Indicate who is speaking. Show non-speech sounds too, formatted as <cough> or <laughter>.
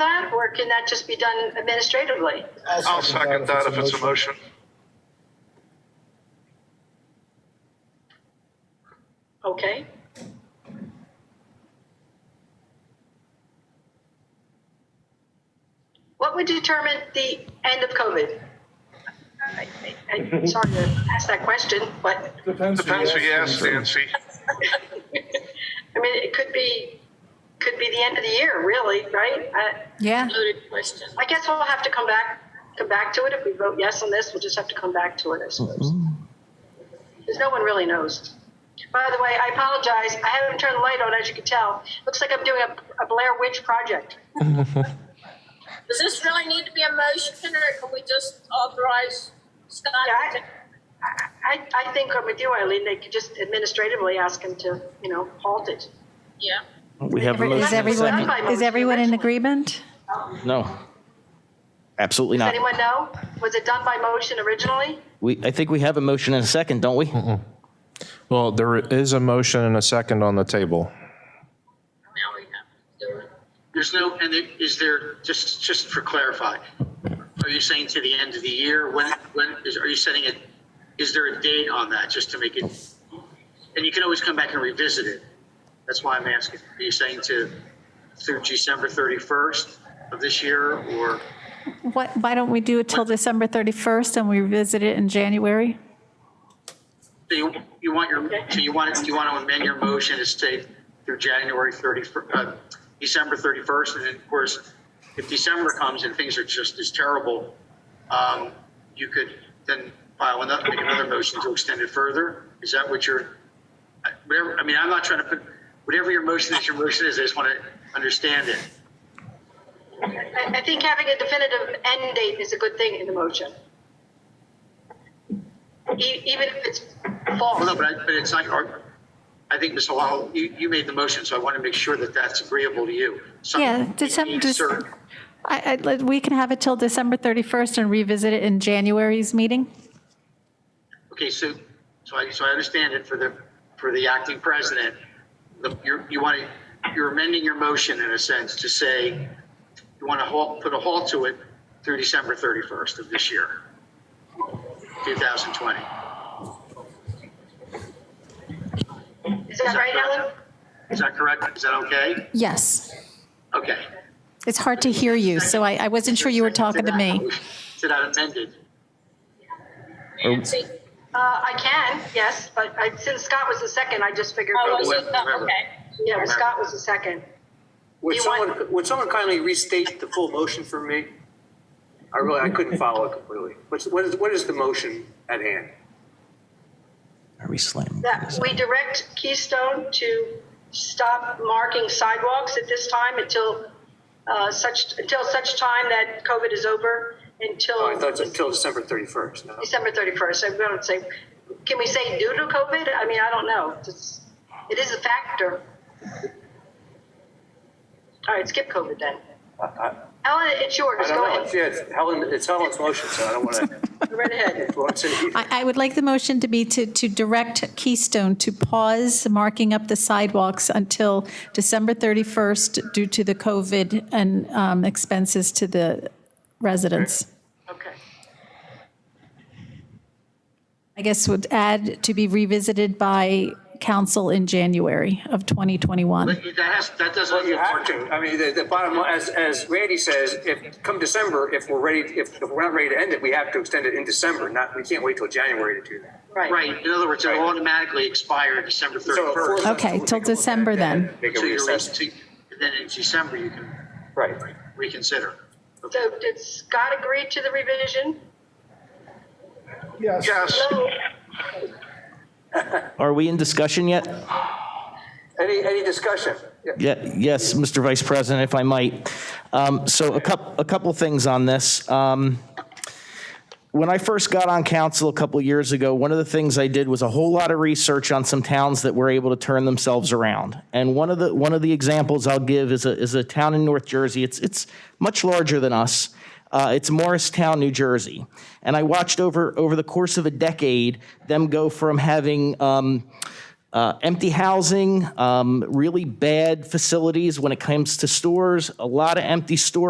Speaker 1: that, or can that just be done administratively?
Speaker 2: I'll second that if it's a motion.
Speaker 1: Okay. What would determine the end of COVID? I- I- I'm sorry to ask that question, but,
Speaker 3: Depends
Speaker 2: Depends who you ask, Nancy.
Speaker 1: I mean, it could be, could be the end of the year, really, right? I-
Speaker 4: Yeah.
Speaker 5: Loaded question.
Speaker 1: I guess we'll have to come back, come back to it. If we vote yes on this, we'll just have to come back to it, I suppose. Because no one really knows. By the way, I apologize. I haven't turned the light on, as you can tell. Looks like I'm doing a, a Blair Witch project.
Speaker 5: Does this really need to be a motion or can we just authorize Scott?
Speaker 1: Yeah,
Speaker 5: to
Speaker 1: I,
Speaker 5: take-
Speaker 1: I, I think I'm with you, Eileen. They could just administratively ask him to, you know, halt it.
Speaker 5: Yeah.
Speaker 6: We have a
Speaker 4: Is
Speaker 6: motion. and a
Speaker 4: everyone,
Speaker 6: second.
Speaker 4: is everyone in agreement?
Speaker 6: No. Absolutely
Speaker 1: Does
Speaker 6: not.
Speaker 1: anyone know? Was it done by motion originally?
Speaker 6: We, I think we have a motion and a second, don't we?
Speaker 7: Well, there is a motion and a second on the table.
Speaker 5: Now we have to do it.
Speaker 8: There's no, and it- is there, just, just for clarify, are you saying to the end of the year? When, when, is, are you setting it, is there a date on that, just to make it? And you can always come back and revisit it. That's why I'm asking. Are you saying to, through December 31st of this year, or?
Speaker 4: What, why don't we do it till December 31st and we revisit it in January?
Speaker 8: So you, you want your, so you want, it- you want to amend your motion to stay through January 31st, uh, December 31st, and then, of course, if December comes and things are just as terrible, um, you could then file another, make another motion to extend it further? Is that what you're, I- whatever, I mean, I'm not trying to put, whatever your motion is, your motion is, I just want to understand it.
Speaker 1: I, I think having a definitive end date is a good thing in the motion. E- even if it's false.
Speaker 8: Well, no, but I, but it's not, your- I think, Ms. Halal, you, you made the motion, so I want to make sure that that's agreeable to you. Some-
Speaker 4: Yeah, did some-
Speaker 8: Yes,
Speaker 4: just-
Speaker 8: sir.
Speaker 4: I, I, we can have it till December 31st and revisit it in January's meeting?
Speaker 8: Okay, so, so I, so I understand it for the, for the acting president. The, you're, you want to, you're amending your motion in a sense to say, you want to halt, put a halt to it through December 31st of this year, 2020.
Speaker 1: Is that right, Ellen?
Speaker 8: Is that correct? Is that okay?
Speaker 4: Yes.
Speaker 8: Okay.
Speaker 4: It's hard to hear you, so I, I wasn't sure you were talking to me.
Speaker 8: To that amended.
Speaker 5: Nancy?
Speaker 1: Uh, I can, yes, but I, since Scott was the second, I just figured.
Speaker 5: Oh, was it?
Speaker 8: Remember.
Speaker 5: Oh, okay.
Speaker 1: Yeah, but Scott was the second.
Speaker 9: Would
Speaker 1: You want-
Speaker 9: someone, would someone kindly restate the full motion for me? I really, I couldn't follow it completely. What's, what is, what is the motion at hand?
Speaker 6: Are we slamming?
Speaker 1: That we direct Keystone to stop marking sidewalks at this time until, uh, such, until such time that COVID is over,
Speaker 9: Oh, I thought it's
Speaker 1: until
Speaker 9: until December 31st, no?
Speaker 1: December 31st. I don't say, can we say due to COVID? I mean, I don't know. It's- It is a factor. All right, skip COVID then. Ellen, it's yours.
Speaker 9: I
Speaker 1: Go
Speaker 9: don't know, It's-
Speaker 1: ahead.
Speaker 9: yeah, it's Helen, it's Helen's motion, so I don't want <laughs> to
Speaker 1: Go Right ahead.
Speaker 9: influence it.
Speaker 4: I, I would like the motion to be to, to direct Keystone to pause marking up the sidewalks until December 31st due to the COVID and um, expenses to the residents.
Speaker 1: Okay.
Speaker 4: I guess would add to be revisited by council in January of 2021.
Speaker 8: That has, that doesn't.
Speaker 9: Well, you have to. I mean, the, the bottom, line- as, as Randy says, if, come December, if we're ready, if if we're not ready to end it, we have to extend it in December, not, we can't wait till January to do that.
Speaker 8: Right, in other words, it'll automatically expire December
Speaker 9: So, for-
Speaker 4: Okay, till
Speaker 8: 31st.
Speaker 9: we'll take a look at it
Speaker 4: December then.
Speaker 9: Make a
Speaker 8: So you're,
Speaker 9: reassessment.
Speaker 8: then in December, you can
Speaker 9: Right.
Speaker 8: reconsider.
Speaker 1: So did Scott agree to the revision?
Speaker 3: Yes.
Speaker 2: Yes,
Speaker 6: Are we in discussion yet?
Speaker 9: Any, any discussion? Yeah.
Speaker 6: Yeah, yes, Mr. Vice President, if I might. Um, So a couple, a couple things on this. Um, When I first got on council a couple years ago, one of the things I did was a whole lot of research on some towns that were able to turn themselves around. And one of the, one of the examples I'll give is a, is a town in North Jersey. It's, it's much larger than us. Uh, It's Morristown, New Jersey. And I watched over, over the course of a decade, them go from having um, uh, empty housing, um, really bad facilities when it comes to stores, a lot of empty store